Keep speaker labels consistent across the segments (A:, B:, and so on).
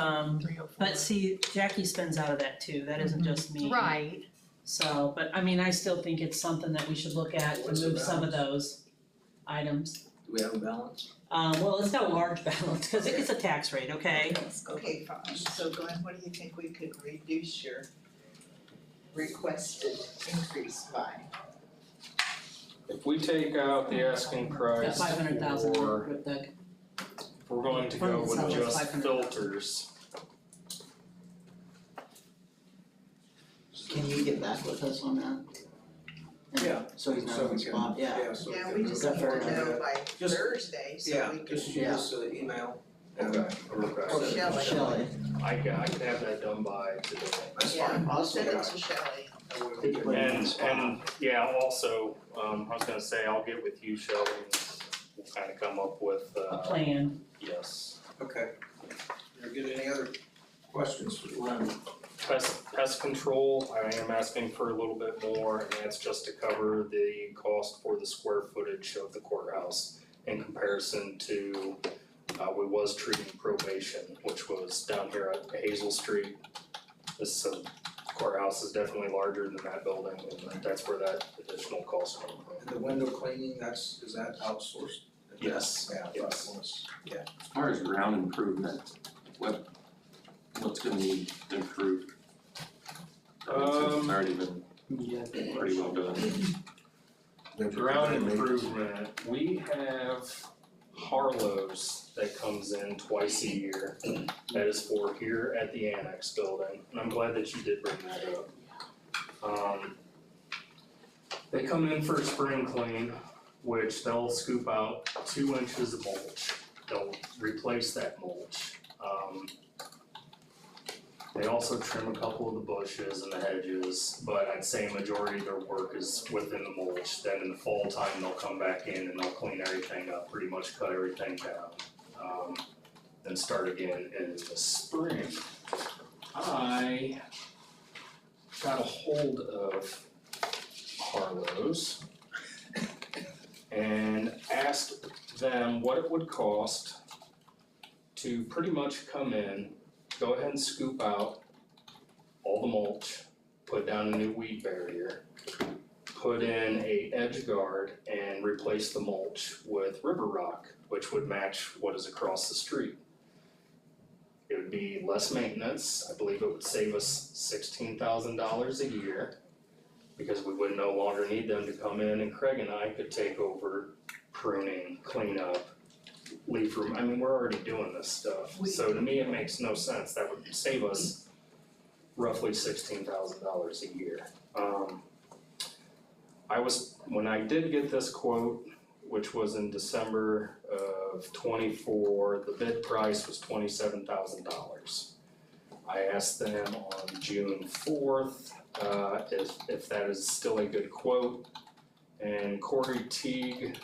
A: Um,
B: three oh four.
A: but see, Jackie spends out of that too, that isn't just me.
C: Right,
A: So, but I mean, I still think it's something that we should look at to
D: What's the
A: move some of those items.
D: Do we have a balance?
A: Uh, well, it's got a large balance, cause it gets a tax rate, okay?
B: Okay, fine, so Glenn, what do you think we could reduce your requested increase by?
E: If we take out the asking
A: Got
E: price
A: five hundred thousand
E: for,
A: with the,
E: if we're going to go with
A: Hundred thousand,
E: just
A: five hundred thousand.
E: filters,
F: Can you get back with us on that? And
D: Yeah.
F: So he's not
D: So we
F: on the
D: can-
F: spot, yeah.
D: so
B: Yeah, we just
F: Is that
B: need
F: fair
B: to
F: enough?
B: know by
D: Just-
B: Thursday, so
D: Yeah,
B: we can,
D: just shoot us an email. and-
E: Okay.
D: Oh,
B: Or Shelley.
F: Shelley,
E: I can, I can have that done by today.
D: That's
B: Yeah.
D: fine.
F: Awesome.
B: send it to Shelley.
D: That way we can-
F: Put it on the
E: And
F: spot.
E: and yeah, also, um, I was gonna say, I'll get with you, Shelley, and we'll kinda come up with uh.
A: a plan.
E: Yes,
D: Okay. You get any other questions for Glenn?
E: pest pest control, I am asking for a little bit more, and that's just to cover the cost for the square footage of the courthouse in comparison to, uh, we was treating probation, which was down here at Hazel Street. This uh, courthouse is definitely larger than that building, and that's where that additional cost came from.
D: And the window cleaning, that's, is that outsourced?
E: Yes,
D: Yeah, I
E: yes.
D: thought it was.
G: As far as ground improvement, what, what's gonna need improved? I mean, since it's
E: Um,
G: already been pretty well done.
E: Ground improvement, we have Harlow's that comes in twice a year. That is for here at the annex building, and I'm glad that you did bring that up. Um, they come in for a spring clean, which they'll scoop out two inches of mulch. They'll replace that mulch. Um, they also trim a couple of the bushes and the hedges, but I'd say majority of their work is within the mulch. Then in the fall time, they'll come back in and they'll clean everything up, pretty much cut everything down. Um, then start again in the spring. I got a hold of Harlow's and asked them what it would cost to pretty much come in go ahead and scoop out all the mulch, put down a new weed barrier, put in a edge guard and replace the mulch with river rock, which would match what is across the street. It would be less maintenance, I believe it would save us sixteen thousand dollars a year because we would no longer need them to come in and Craig and I could take over pruning, cleanup, leaf room, I mean, we're already doing this stuff,
B: We-
E: so to me, it makes no sense, that would save us roughly sixteen thousand dollars a year. Um, I was, when I did get this quote, which was in December of twenty-four, the bid price was twenty-seven thousand dollars. I asked them on June fourth, uh, if, if that is still a good quote. And Corey Teague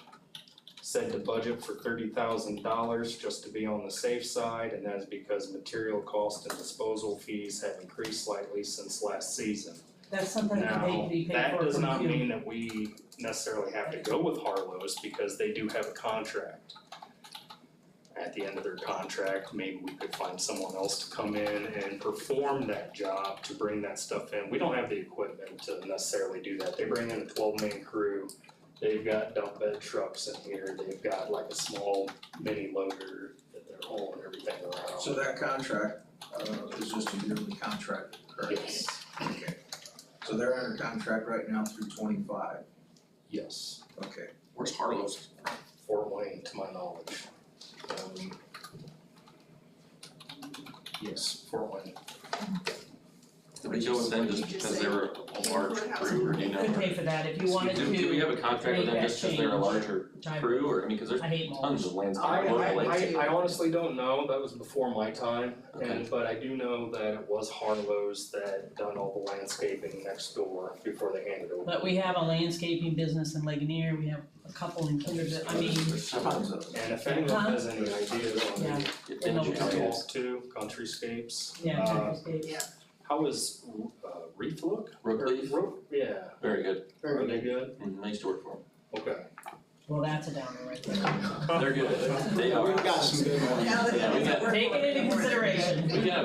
E: said to budget for thirty thousand dollars just to be on the safe side, and that is because material cost and disposal fees have increased slightly since last season.
A: That's something that they be paid
E: Now,
A: for
E: that does
A: from
E: not
A: you.
E: mean that we necessarily have to go with Harlow's because they do have a contract. At the end of their contract, maybe we could find someone else to come in and perform that job to bring that stuff in. We don't have the equipment to necessarily do that. They bring in a twelve man crew. They've got dump bed trucks in here. They've got like a small mini loader that they're hauling everything around.
D: So that contract, uh, is just a yearly contract, correct?
E: Yes,
D: Okay. So they're under contract right now through twenty-five,
E: yes.
D: okay.
G: Where's Harlow's?
E: Fort Wayne, to my knowledge. Um, Yes, Fort Wayne.
G: Did we go with them just because they were a large crew or do you know?
A: Could pay for that if you wanted
G: Do, do we
A: to,
G: have a contract with them
A: make
G: just
A: that
G: because they're a
A: change.
G: larger crew or, I mean, cause there's
A: I hate mulch.
G: tons of lands
E: I,
G: on local
E: I,
G: lakes.
E: I, I honestly don't know, that was before my time, and,
G: Okay.
E: but I do know that it was Harlow's that done all the landscaping next door before they handed over.
A: But we have a landscaping business in Ligonier, we have a couple in Kindergarten, I mean,
G: There's several.
D: Tons of them.
E: And if anyone
A: Huh?
E: has any ideas on
A: Yeah.
E: the,
G: Get
A: And
G: them
A: over
E: you
G: to
E: can
A: there.
G: Harlow's.
E: talk to, countryscapes,
A: yeah,
E: uh,
A: Kindergarten.
E: how is, uh, Reef look?
G: Rook Leaf,
E: Rope- yeah,
G: very good.
E: are they good?
G: Mm, I used to work for
E: Okay.
A: Well, that's a downer right there.
G: them. They're good. They are.
D: We've got some good ones.
B: Now that
G: Yeah, we
B: it's
G: got-
B: working
A: Take it into
B: with-
A: consideration.
G: We got